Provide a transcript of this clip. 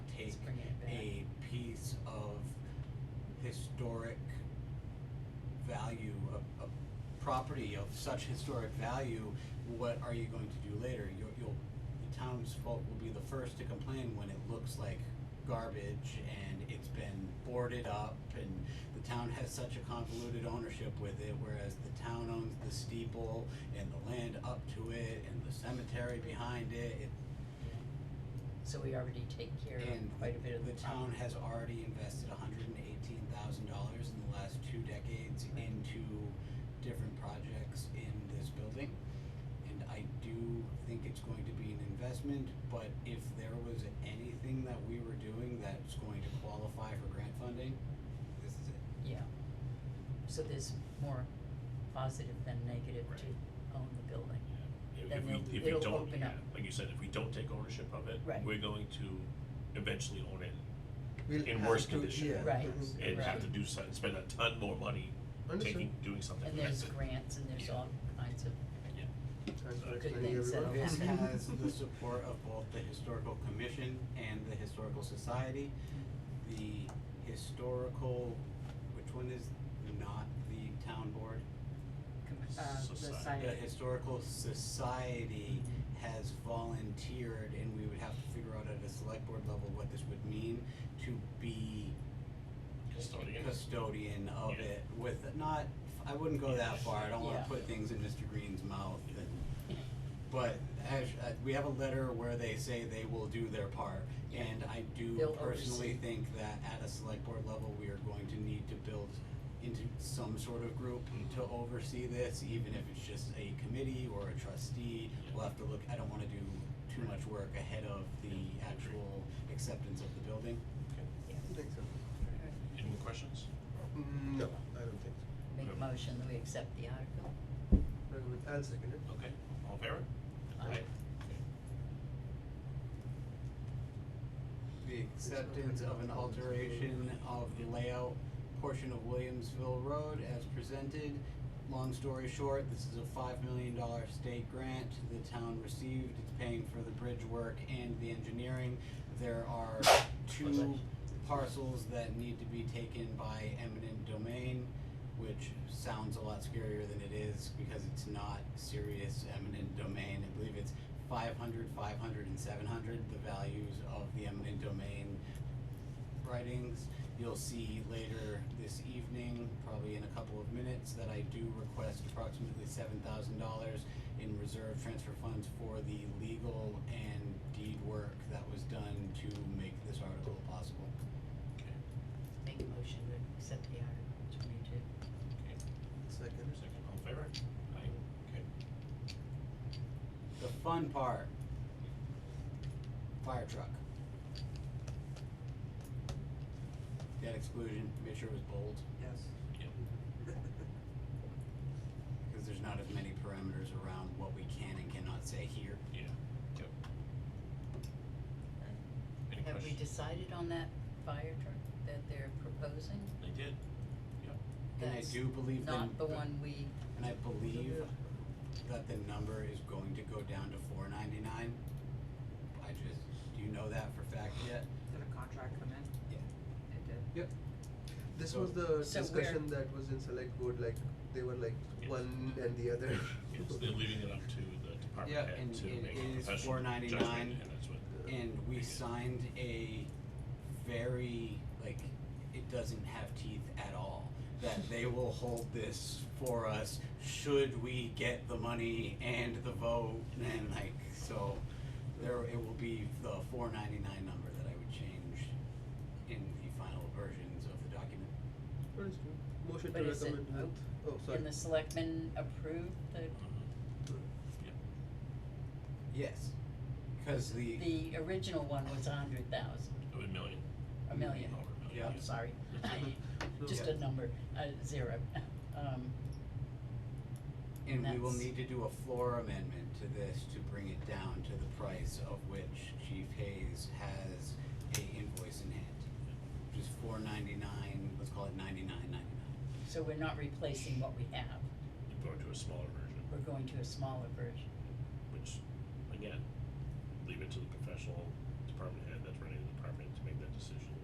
historic value, a, a property of such historic value, what are you going to do later? You'll, you'll, the townsfolk will be the first to complain when it looks like garbage and it's been boarded up and the town has such a convoluted ownership with it, whereas the town owns the steeple and the land up to it and the cemetery behind it, it, So we already take care and of quite a bit of the the town property. has already invested hundred and eighteen thousand dollars in the last two decades into different projects in this building. And I do think it's going to be an investment, but if there was anything that we were doing that's going to qualify for grant funding, this is it. Yeah. So there's more positive than negative Right. to own the building. If- Then If they'll- we, if we it'll don't, open up. like you said, if we don't take ownership of it, Right. we're going to eventually own it We'll in have worse to- condition. yeah. Right. Mhm. and have Right. to do some, spend a ton more money Understood. taking, doing something. And with there's it. grants and there's Yeah. all kinds of, uh, Yeah. Thanks for Good explaining things that'll everyone. This Okay. has the support of both the historical commission and the historical society. The historical, which one is not the town board? com- uh, the Society. site. The historical society has volunteered, and we would have to figure out at a select board level what this would mean to be Custodian. custodian of Yeah. it with, not, I wouldn't go that far, I don't wanna Yeah. put things in Mr. Green's mouth and but as, uh, we have a letter where they say they will do their part, Yeah. and I do They'll personally oversee. think that at a select board level, we are going to need to build into some sort of group Mm-hmm. to oversee this, even if it's just a committee or a trustee, we'll have to look, I don't wanna do too much work ahead of the actual acceptance of the building. Okay. I think so. Any more questions? Mm, No, I don't think so. Make a motion that we accept the article. Recommend- I'll second eh? it. Okay, all in favor? Aye. The acceptance of an alteration of the layout portion of Williamsville Road as presented. Long story short, this is a five million dollar state grant the town received, it's paying for the bridge work and the engineering. There are two parcels that need to be taken by eminent domain, which sounds a lot scarier than it is because it's not serious eminent domain, I believe it's 500, 500, and 700, the values of the eminent domain writings. You'll see later this evening, probably in a couple of minutes, that I do request approximately $7,000 in reserve transfer funds for the legal and deed work that was done to make this article possible. Okay, Make a motion to accept the article twenty-two. okay, Second. second, all in favor? Aye, okay. The fun part fire truck. Debt exclusion, make sure it was bold. Yes. Yep. because there's not as many parameters around what we can and cannot say here. Yeah, yep. Alright. Any Have we questions? decided on that fire truck that they're proposing? They did, yep. And I That's do believe the, Not the one we, and I believe that the number is going to go down to four ninety nine. I just, do you know that for fact yet? Did a contract come in? Yeah. It did. This So- was the So discussion that was in select board, like, they were like Yes. one and the other. Yeah, so they're leaving it up to the department Yeah, head and to it make a is professional judgment, $4.99. and that's what, And we signed a very, like, it doesn't have teeth at all. That they will hold this for us should we get the money and the vote and like, so there, it will be the four ninety-nine number that I would change in the final versions of the document. What is it? Motion to But is it recommend with, oh, sorry. and the selectmen approved the, Mhm. Yep. Yes, cause the, the original one was a hundred thousand, Of a million, a million. over a million, Yeah. yeah. I'm sorry, No. just a number, uh, zero. Um, and we will that's- need to do a floor amendment to this to bring it down to the price of which Chief Hayes has a invoice in hand. Which is four ninety-nine, let's call it ninety-nine ninety-nine. so we're not replacing what we have, You go to a smaller version. we're going to a smaller version. which again, leave it to the professional